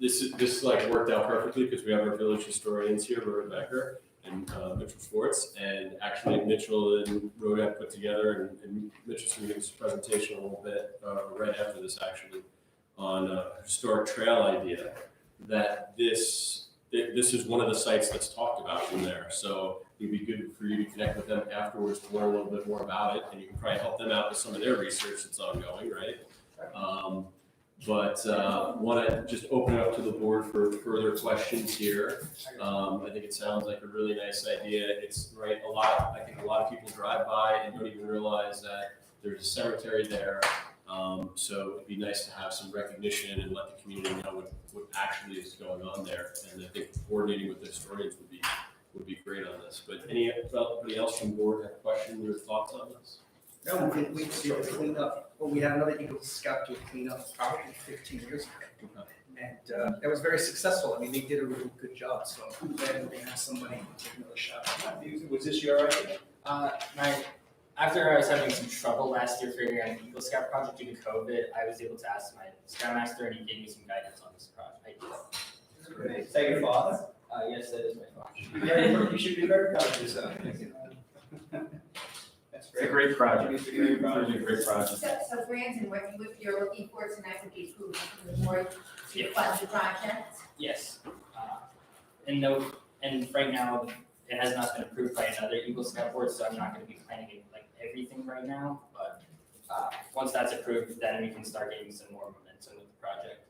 this is, this like worked out perfectly because we have our village historians here, Rhoda Becker and uh, Mitchell Schwartz. And actually Mitchell and Rhoda put together and- and Mitchell's gonna give us a presentation a little bit, uh, right after this actually, on a historic trail idea, that this, thi- this is one of the sites that's talked about in there. So it'd be good for you to connect with them afterwards to learn a little bit more about it. And you can probably help them out with some of their research that's ongoing, right? Um, but uh, want to just open it up to the board for further questions here. Um, I think it sounds like a really nice idea. It's right, a lot, I think a lot of people drive by and don't even realize that there's a cemetery there. Um, so it'd be nice to have some recognition and let the community know what, what actually is going on there. And I think coordinating with the historians would be, would be great on this. But any, anybody else from board have questions or thoughts on this? No, we didn't wait to do the cleanup, but we had another Eagle Scout do a cleanup probably fifteen years ago. And uh, that was very successful, I mean, they did a really good job, so I'm glad that they have somebody take another shot. Was this your idea? Uh, my, after I was having some trouble last year figuring out an Eagle Scout project due to COVID, I was able to ask my scoutmaster and he gave me some guidance on this project. Is that your father? Uh, yes, that is my project. Yeah, you should be very proud of yourself. It's That's a great. great project. It's a great project. It's a great So, project. so Brandon, what you would, you're looking for tonight would be approval from the board Yeah. to fund the project? Yes, uh, and no, and right now, it has not been approved by another Eagle Scout board, so I'm not gonna be planning it like everything right now, but, uh, once that's approved, then we can start getting some more momentum with the project.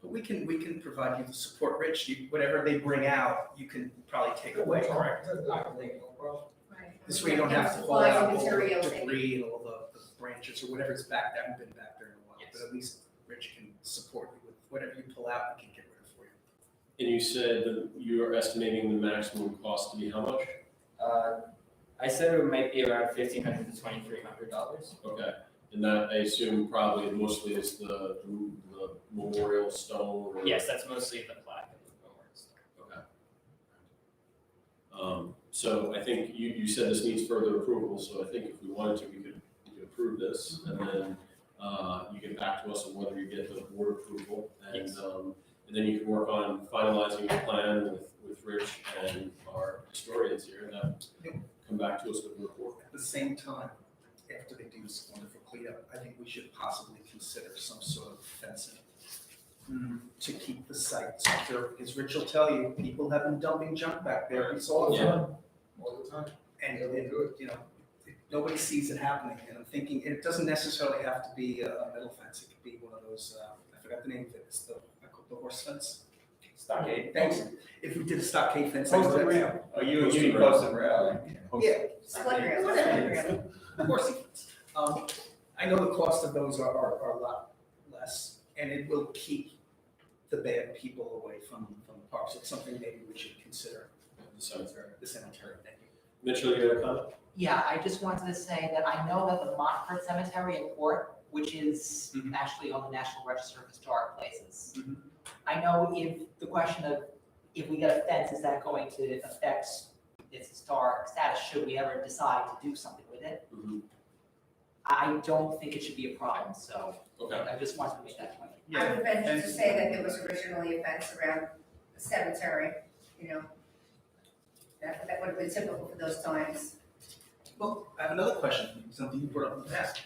But we can, we can provide you the support, Rich, you, whatever they bring out, you can probably take away, correct? Right. This way you don't have to pull Supplies and out all the materials and- debris and all the, the branches or whatever's back, that haven't been back there in a while. Yes. But at least Rich can support you with whatever you pull out, we can get rid of for you. And you said that you are estimating the maximum cost to be how much? Uh, I said it might be around fifteen hundred to twenty-three hundred dollars. Okay, and that I assume probably mostly is the, the memorial stone or? Yes, that's mostly the plaque and the memorials. Okay. Um, so I think you, you said this needs further approval, so I think if we wanted to, we could, we could approve this and then, uh, you get back to us on whether you get the board approval and, Yes. um, and then you can work on finalizing your plan with, with Rich and our historians here and then come back to us with a report. At the same time, after they do this wonderful cleanup, I think we should possibly consider some sort of fencing to keep the site secure, because Rich will tell you, people have been dumping junk back there, we saw it. Yeah. All the time. And, and, you know, nobody sees it happening, and I'm thinking, and it doesn't necessarily have to be a a metal fence, it could be one of those, uh, I forgot the name of it, it's the, I call it the horse fence. Stockade. Thanks, if we did a stockade fence. I Post and would- rail. Oh, you, Post you and rail. post and rail. Yeah, Split rail. Whatever. Of course it is. Um, I know the cost of those are, are, are a lot less, and it will keep the bad people away from, from the parks. It's something maybe we should consider, The cemetery. the cemetery, thank you. Mitchell, you have a comment? Yeah, I just wanted to say that I know that the Montford Cemetery in Port, which is Mm-hmm. Mhm. actually on the National Register of Historic Places. Mhm. I know if, the question of, if we get a fence, is that going to affect its historic status? Should we ever decide to do something with it? Mhm. I don't think it should be a problem, so Okay, I just wanted to make that point. I would venture and- to say that there was originally a fence around the cemetery, you know? That, that would have been typical for those times. Well, I have another question, for you, something you brought up in the past.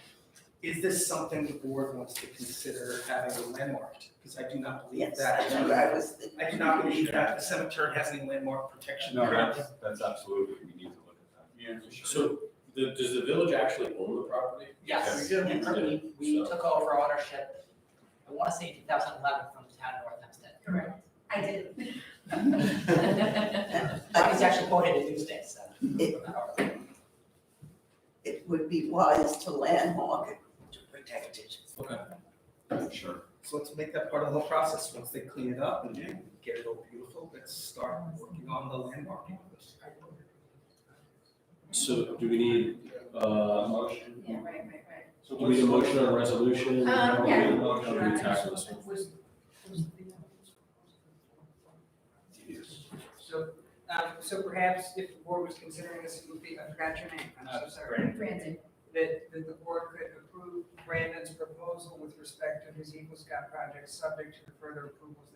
Is this something the board wants to consider having a landmarked? Because I do not believe that. was. I do not believe that the cemetery has any landmark protection. No, that's, that's absolutely, we need to look at that. Yeah, for sure. so the, does the village actually own the property? Yes, Yeah. we, we- we So- took over ownership, I wanna say two thousand eleven from the town of North Hempstead. Correct. I did. I was actually quoted in Newsday, so. It- It would be wise to landmark it to protect it. Sure. So let's make that part of the whole process, once they clean it up and get it all beautiful, let's start working on the landmarking of this. So do we need, uh, Motion. Yeah, right, right, right. So Do we need a motion on resolution? Um, yeah. How do we tackle this one? So, um, so perhaps if the board was considering this, it would be, I forgot your name, I'm so sorry. Brandon, That, that the board could approve Brandon's proposal with respect to his Eagle Scout project, subject to the further approvals